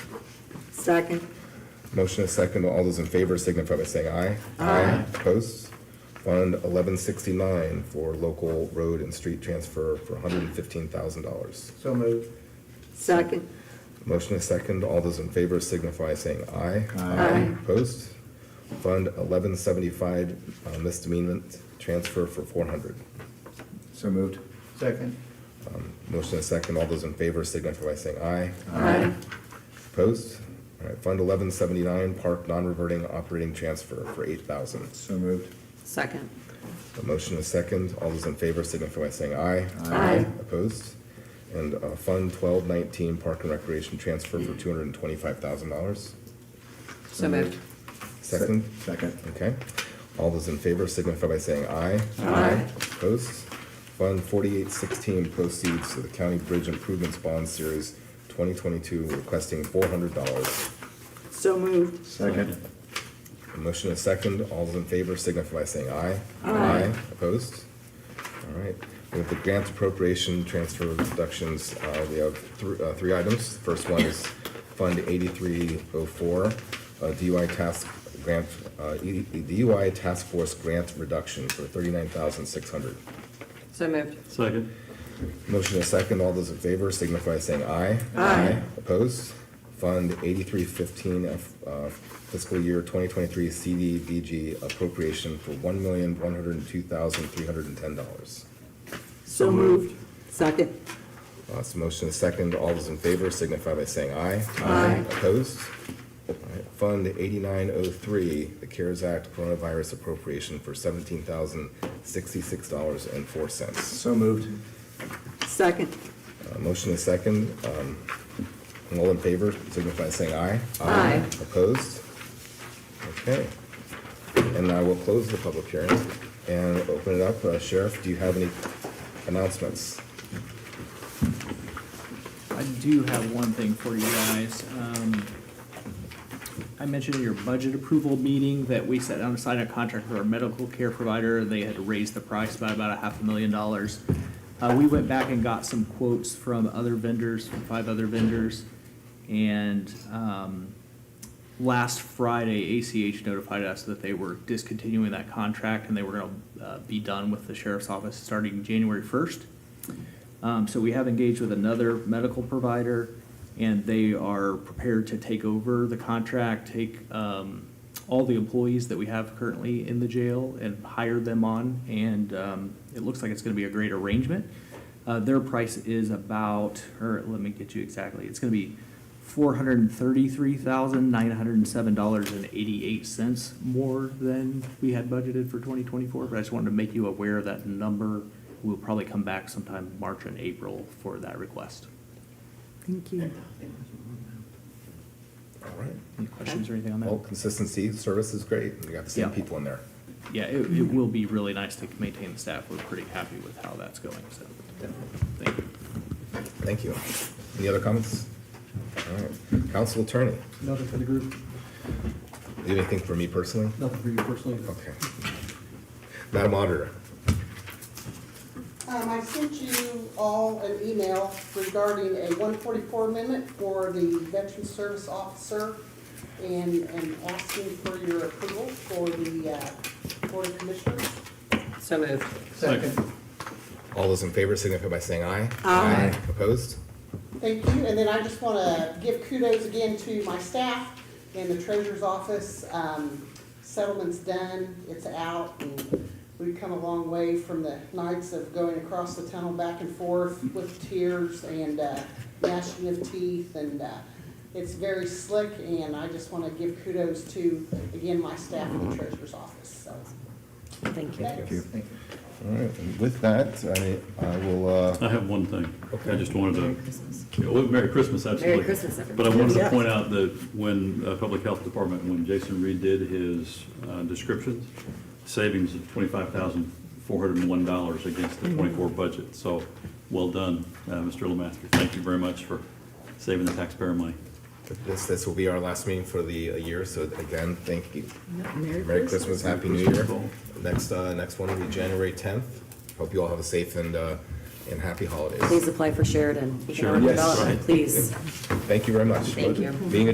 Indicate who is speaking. Speaker 1: Second.
Speaker 2: Motion is second. All those in favor signify by saying aye.
Speaker 1: Aye.
Speaker 2: Opposed? Fund eleven sixty-nine for local road and street transfer for hundred and fifteen thousand dollars.
Speaker 3: So moved.
Speaker 1: Second.
Speaker 2: Motion is second. All those in favor signify by saying aye.
Speaker 1: Aye.
Speaker 2: Opposed? Fund eleven seventy-five uh, misdemeanor transfer for four hundred.
Speaker 4: So moved.
Speaker 3: Second.
Speaker 2: Motion is second. All those in favor signify by saying aye.
Speaker 1: Aye.
Speaker 2: Opposed? All right, Fund eleven seventy-nine park non-reverting operating transfer for eight thousand.
Speaker 4: So moved.
Speaker 1: Second.
Speaker 2: A motion is second. All those in favor signify by saying aye.
Speaker 1: Aye.
Speaker 2: Opposed? And uh, Fund twelve nineteen, Park and Recreation transfer for two hundred and twenty-five thousand dollars.
Speaker 1: So moved.
Speaker 2: Second?
Speaker 4: Second.
Speaker 2: Okay. All those in favor signify by saying aye.
Speaker 1: Aye.
Speaker 2: Opposed? Fund forty-eight sixteen proceeds to the County Bridge Improvements Bond Series twenty twenty-two requesting four hundred dollars.
Speaker 1: So moved.
Speaker 4: Second.
Speaker 2: A motion is second. All those in favor signify by saying aye. Aye. Opposed? All right. We have the grants appropriation transfer deductions. Uh, We have thr- uh, three items. First one is Fund 8304, uh, DUI task grant, uh, E- DUI task force grant reduction for 39600
Speaker 1: So moved.
Speaker 5: Second,
Speaker 2: Motion is second. All those in favor signify by saying aye. Aye. Opposed? Fund eighty-three fifteen, uh, fiscal year twenty twenty-three CDBG appropriation for one million, one hundred and two thousand, three hundred and ten dollars.
Speaker 1: So moved. Second.
Speaker 2: Uh, so motion is second. All those in favor signify by saying aye. Aye. Opposed? All right. Fund eighty-nine oh three, the CARES Act coronavirus appropriation for seventeen thousand, sixty-six dollars and four cents.
Speaker 4: So moved.
Speaker 1: Second.
Speaker 2: Uh, Motion is second. Um, All in favor, signify by saying aye.
Speaker 1: Aye.
Speaker 2: Opposed? Okay. And I will close the public hearing and open it up. Uh, Sheriff, do you have any announcements?
Speaker 6: I do have one thing for you guys. Um, I mentioned in your budget approval meeting that we set down to sign a contract for our medical care provider. They had raised the price by about a half a million dollars. Uh, we went back and got some quotes from other vendors, from five other vendors. And, um, last Friday, ACH notified us that they were discontinuing that contract and they were gonna, uh, be done with the sheriff's office starting January first. Um, so we have engaged with another medical provider, and they are prepared to take over the contract, take, um, all the employees that we have currently in the jail and hire them on, and, um, it looks like it's gonna be a great arrangement. Uh, their price is about, or let me get you exactly, it's gonna be four hundred and thirty-three thousand, nine hundred and seven dollars and eighty-eight cents more than we had budgeted for twenty twenty-four, but I just wanted to make you aware of that number. We'll probably come back sometime March and April for that request.
Speaker 1: Thank you.
Speaker 2: All right.
Speaker 6: Any questions or anything on
Speaker 2: Well,
Speaker 6: that?
Speaker 2: consistency, service is great. We got the same
Speaker 6: Yeah.
Speaker 2: people in there.
Speaker 6: Yeah, it, it will be really nice to maintain the staff. We're pretty happy with how that's going, so, thank you.
Speaker 2: Thank you. Any other comments? All right. Council Attorney,
Speaker 7: Nothing for the group,
Speaker 2: do you have anything for me personally?
Speaker 7: nothing for you personally.
Speaker 2: Okay. Madam Auditor,
Speaker 8: Um, I sent you all an email regarding a one forty-four amendment for the veteran service officer and, and asking for your approval for the, uh, Board of Commissioners.
Speaker 1: So moved.
Speaker 3: Second.
Speaker 2: all those in favor signify by saying aye.
Speaker 1: Aye.
Speaker 2: Opposed?
Speaker 8: Thank you, and then I just wanna give kudos again to my staff and the treasurer's office. Um, settlement's done, it's out, and we've come a long way from the nights of going across the tunnel back and forth with tears and, uh, gnashing of teeth, and, uh, it's very slick, and I just wanna give kudos to, again, my staff and the treasurer's office, so.
Speaker 1: Thank you.
Speaker 8: thanks.
Speaker 4: Thank you.
Speaker 2: All right, and with that, I, I will, uh,
Speaker 5: I have one thing. I just wanted
Speaker 1: Christmas.
Speaker 5: to, Oh, Merry Christmas, absolutely.
Speaker 1: Christmas, everybody.
Speaker 5: But I wanted
Speaker 1: Yeah.
Speaker 5: to point out that when uh, Public Health Department, when Jason Reed did his uh, descriptions, savings of twenty-five thousand four hundred and one dollars against the twenty-four budget. So, well done, uh, Mr. Lemaster. Thank you very much for saving the taxpayer money.
Speaker 2: this, this will be our last meeting for the uh, year, so again, thank you.
Speaker 1: Merry
Speaker 2: Merry
Speaker 1: Christmas.
Speaker 2: Christmas, Happy New Year. Next, uh, next one will be January tenth. Hope you all have a safe and, uh, and happy holidays.
Speaker 9: Please apply for Sheridan Economic
Speaker 5: Sheridan, yes,
Speaker 9: Development,
Speaker 5: right.
Speaker 9: please.
Speaker 2: Thank you very much.
Speaker 9: Thank you.
Speaker 2: Being